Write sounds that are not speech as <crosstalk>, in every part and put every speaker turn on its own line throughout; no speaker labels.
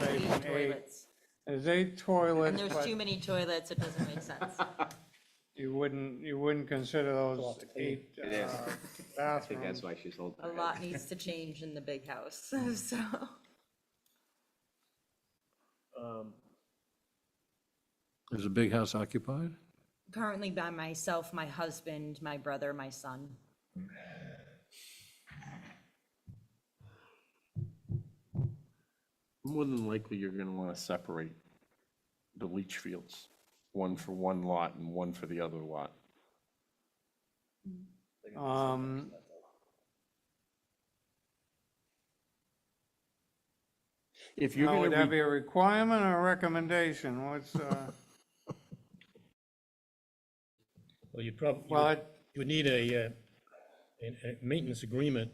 many
eight.
toilets.
There's eight toilets,
And there's
but
too many toilets, it doesn't make <laughs> sense.
you wouldn't, you wouldn't consider those eight
It is.
uh,
I <laughs> think that's
bathrooms.
why she's holding
Um, A
her head.
lot needs to change in the big house, <laughs> so.
Um,
Is the big house occupied?
Currently by myself, my husband, my brother, my son.
More than likely, you're gonna wanna separate the leach fields, one for one lot and one for the other lot.
Um,
If you're
now, would
gonna,
that
re-
be a requirement or a recommendation? What's, uh,
<laughs>
Well, you'd probably,
well, it-
you would need a, uh, a, a maintenance agreement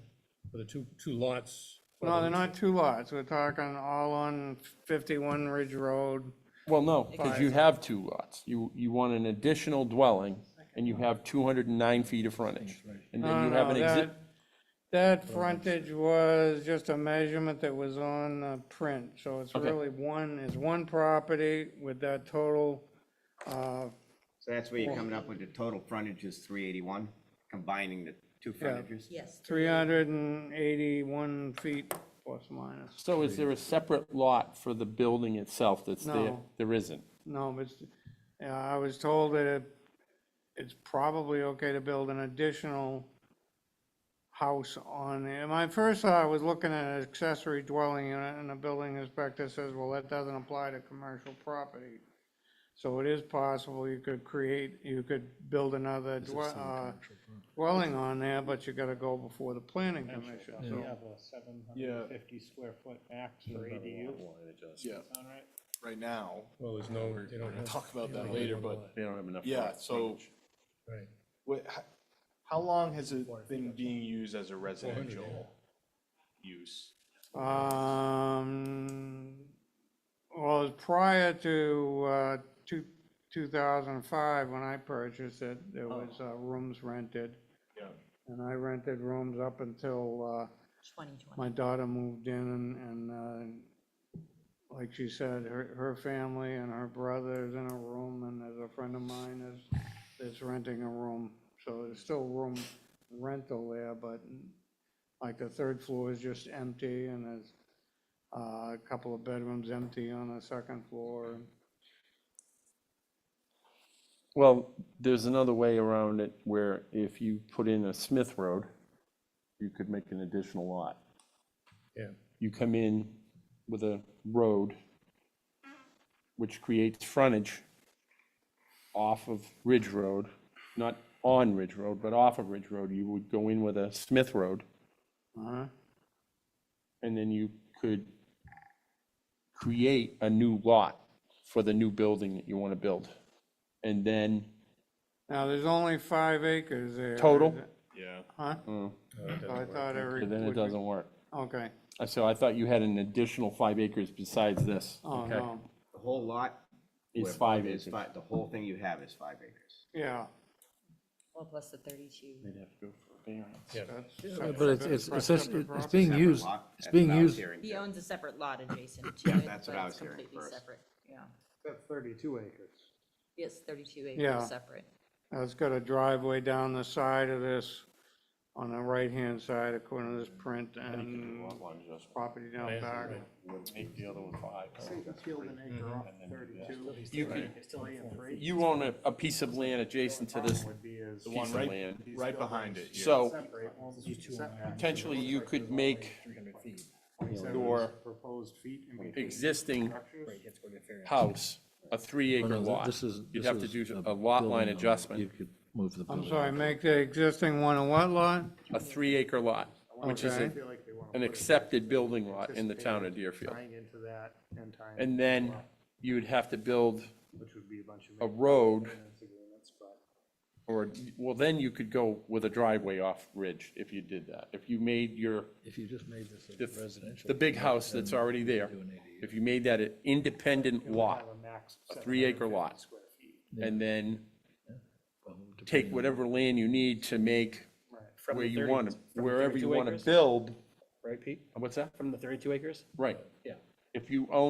for the two, two lots.
no, they're not two lots. We're talking all on fifty-one Ridge Road.
well, no, because you have two lots. You, you want an additional dwelling, and you have two hundred and nine feet of frontage. And
No,
then you
no,
have an exit,
that- That frontage was just a measurement that was on the print, so it's
Okay.
really one, it's one property with that total, uh,
So that's where you're coming up with the total frontage is three eighty-one, combining the two frontages?
Yes.
three hundred and eighty-one feet plus minus.
so is there a separate lot for the building itself that's there?
No.
There isn't.
No, but, it's- yeah, I was told that it- it's probably okay to build an additional house on it. My first thought, I was looking at an accessory dwelling unit, and the building inspector says, well, that doesn't apply to commercial property. So it is possible you could create, you could buld another dwe- uh, dwelling on there, but you gotta go before the planning commission,
We
so.
have a seven hundred and fifty square foot max for ADU,
Yeah,
sound right?
right now,
Well, there's no, they don't have.
talk about
they
that
don't have
later,
one
but-
lot,
They don't have enough.
yeah,
lots.
so,
Right.
what, how, how long has it been being used as a residential use?
Um, well, prior to, uh, two, two thousand and five, when I purchased it, there was, uh, rooms rented.
Yeah.
And I rented rooms up until, uh, my
2020.
daughter moved in and, and, uh, like she said, her, her family and her brother is in a room and there's a friend of mine is, is renting a room. So there's still room rental there, but like the third floor is just empty and there's uh, a couple of bedrooms empty on the second floor. and-
Well, there's another way around it where if you put in a Smith Road, you could make an additional lot.
Yeah,
you come in with a road which creates frontage off of Ridge Road, not on Ridge Road, but off of Ridge Road, you would go in with a Smith Road,
Uh-huh.
and then you could create a new lot for the new building that you want to build. And then,
Now, there's only five acres there. is
Total?
it?
Yeah.
Huh?
Mm.
So I thought every.
then it doesn't work. Uh,
Okay,
So I thought you had an additional five acres besides this.
oh, no,
The whole lot?
It's
where-
five
is
acres.
fi- The whole thing you have is five acres.
yeah.
Well, plus the 32.
They'd have to go for a variance.
yeah.
But it's, it's,
Separate
essentially, it's
property.
being
Separate
used,
lot,
it's
that's
being
what I was
used,
hearing,
He
Jeff.
owns a separate lot adjacent to
Yeah,
it,
that's
but
what I
it's
was hearing
completely
first.
separate, yeah.
That's thirty-two acres.
It's 32
Yeah.
acres separate.
Uh, It's got a driveway down the side of this, on the right-hand side according to this print, and property down back.
Field an
Mm-hmm.
acre off thirty-two.
You could-
Still in three.
You own a, a piece of land adjacent to this
Would be as.
the one
Piece of
right,
land right behind it. yeah.
so
Separate.
potentially you could make
Your. Proposed feet. and between
existing
structures.
house a three acre
Oh, No, no,
lot.
this is-
You'd
this
have to
is
do
a
a lot
building
line
on it. You
adjustment,
could move the
I'm
building.
sorry, make the existing one a what lot?
a three acre lot, which is
Okay.
I feel like they wanna
an
put it
accepted building lot in the town of
anticipated
Deerfield.
Tying into that and tying.
And then you would have to build
Which would be a bunch
a
of.
road
maintenance agreements, but
or, well, then you could go with a driveway off Ridge if you did that. If you made your,
If you just made this a
the,
residential.
the big house
um,
that's already there, if you made that an independent lot,
have a max. of
a three acre
750
lot.
square feet.
and then
depending
take whatever land you need to make
From
where
the
you
30
want to,
from the
wherever
32
you want to
acres,
build.
Right, Pete?
What's that?
From the 32 acres?
Right.
Yeah.
If you own